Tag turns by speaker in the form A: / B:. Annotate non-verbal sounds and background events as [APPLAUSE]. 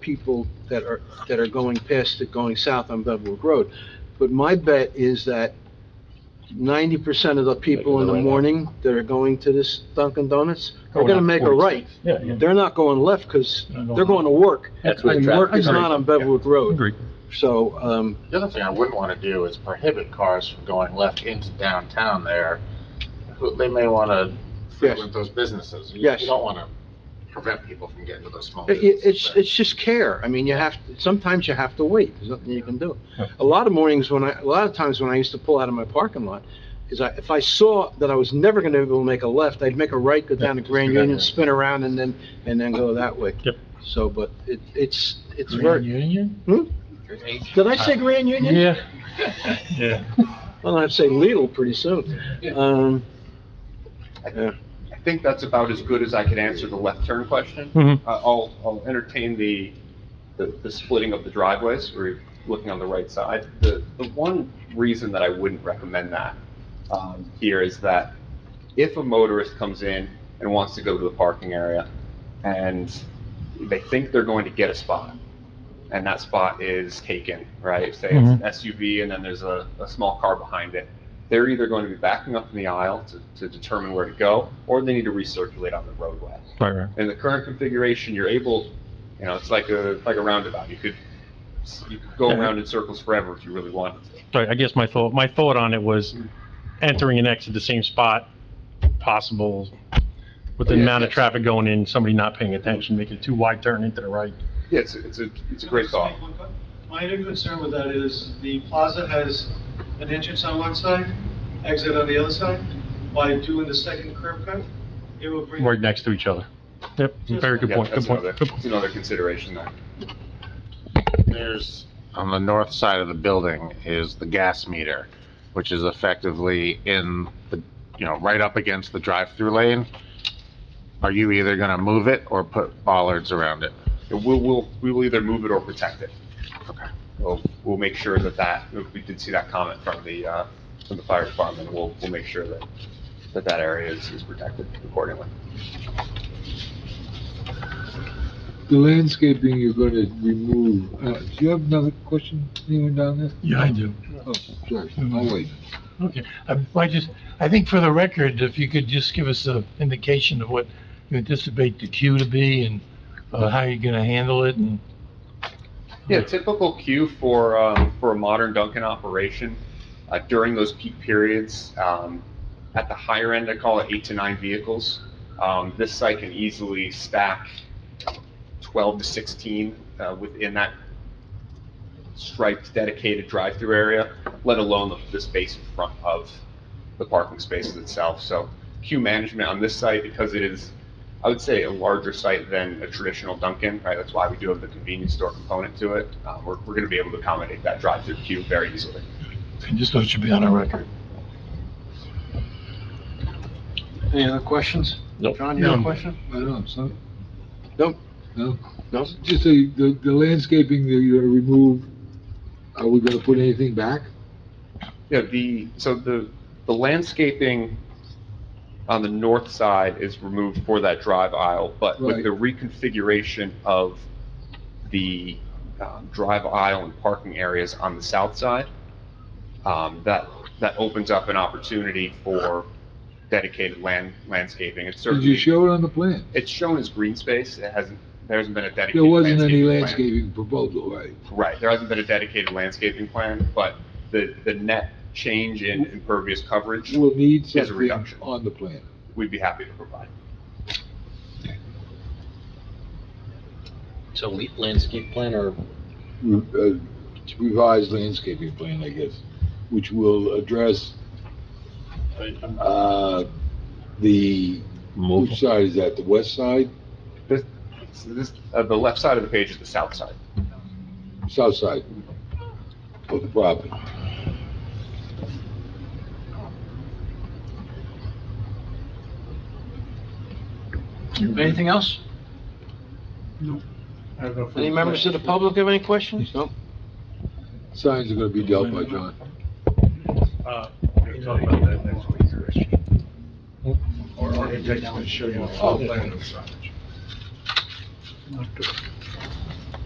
A: people that are, that are going past, that going south on Bevwick Road. But my bet is that ninety percent of the people in the
B: Making a right.
A: morning that are going to this Dunkin' Donuts are
B: Going
A: gonna
B: up
A: make a
B: 46.
A: right.
B: Yeah, yeah.
A: They're not going left, because
B: They're going
A: they're going to work.
B: That's where
A: And
B: traffic-
A: work is
B: Agreed.
A: not on Bevwick Road.
C: Agreed.
A: So, um,
D: The other thing I wouldn't want to do is prohibit cars from going left into downtown there. Who- They may want to frequent those businesses. You-
A: Yes.
D: You don't want to prevent people from getting to those small
A: It- it-
D: businesses.
A: It's,
D: but-
A: it's just care. I mean, you have, to sometimes you have to wait. There's nothing you can do. A lot of mornings when I, a lot of times when I used to pull out of my parking lot, is I, if I saw that I was never gonna be able to make a left, I'd make a right, go down to Grand
D: do that
A: Union,
D: way.
A: spin around and then, and then go that way.
C: Yep.
A: So, but it, it's, it's
B: Grand
A: very,
B: Union?
A: did I say Grand Union?
C: [LAUGHS]
B: Yeah. Yeah.
A: Well, I'd say Lidl pretty soon. Um,
E: I think that's about as good as I could answer the left turn question.
C: Mhm.
E: I- Uh, I'll, I'll entertain the, the the splitting of the driveways, we're looking on the right side. The, the one reason that I wouldn't recommend that um, here is that if a motorist comes in and wants to go to the parking area, and they think they're going to get a spot, and that spot is taken, right? Say it's an SUV and then there's a, a small car behind it. They're either going to be backing up in the aisle to, to determine where to go, or they need to recirculate on the roadway.
C: Right, right.
E: In the current configuration, you're able, you know, it's like a, like a roundabout. You could, you could go around in circles forever if you really wanted to.
C: Right, I guess my thought, my thought on it was entering and exit the same spot possible with the
E: Yeah,
C: amount of
E: yes.
C: traffic going in, somebody not paying attention, making a too wide turn into the right.
E: Yeah, it's, a- it's a, it's a great thought.
F: My only concern with that is the plaza has an entrance on one side, exit on the other side. By doing the second curb cut, it will bring.
C: right next to each other. Yep, very good
E: Yeah,
C: point, good
E: that's
C: point.
E: another-
C: good point.
E: That's another consideration there.
D: There's, on the north side of the building is the gas meter, which is effectively in the, you know, right up against the drive-through lane. Are you either going to move it or put bollards around it?
E: We'll, we'll, we will either move it or protect it. We'll, we'll make sure that that, we did see that comment from the, uh, from the fire department. We'll, we'll make sure that, that that area is, is protected accordingly.
G: The landscaping you're going to remove, uh, do you have another question, anyone down there?
H: Yeah, I do. Mm-hmm.
G: Oh, sorry, I'll wait.
H: Okay. I I just, I think for the record, if you could just give us an indication of what you anticipate the queue to be and uh, how you're going to handle it and
E: Yeah, typical queue for, um, for a modern Dunkin' operation, uh, during those peak periods, um, at the higher end, I call it eight to nine vehicles. Um, this site can easily stack twelve to sixteen, uh, within that striped dedicated drive-through area, let alone the, the space in front of the parking spaces itself. So queue management on this site, because it is, I would say, a larger site than a traditional Dunkin', right? That's why we do have the convenience store component to it. Um, we're, we're gonna be able to accommodate that drive-through queue very easily.
H: I just thought it should be on our record.
A: any other questions?
C: Nope.
A: John, you have a
H: No.
A: question?
G: I don't know, so.
A: Nope.
G: No?
A: No?
G: Just the, the the landscaping that you're going to remove, are we going to put anything back?
E: Yeah, the, so the, the landscaping on the north side is removed for that drive aisle, but with
G: Right.
E: the reconfiguration of the um, drive aisle and parking areas on the south side, um, that, that opens up an opportunity for dedicated land, landscaping. It's
G: Did
E: certainly,
G: you show it on the plan?
E: it's shown as green space, it hasn't, there hasn't been a dedicated
G: There wasn't any
E: plan.
G: landscaping proposal, right?
E: Right, there hasn't been a dedicated landscaping plan, but the, the net change in impervious coverage
G: We'll need
E: a
G: something
E: reduction.
G: on the plan.
E: we'd be happy to provide.
B: So landscape plan or?
G: re- uh, revised landscaping plan, I guess, which will address, uh, the, which side is that, the west side,
E: This, so this, uh, the left side of the page is the south side.
G: south side of the property?
A: Anything else?
F: I have no further
A: Any members of the public have any questions? No?
G: Signs are gonna be dealt by John.
F: We'll talk about that next week, Rich. Or architects will show you.
G: Oh.
F: Plan of signage.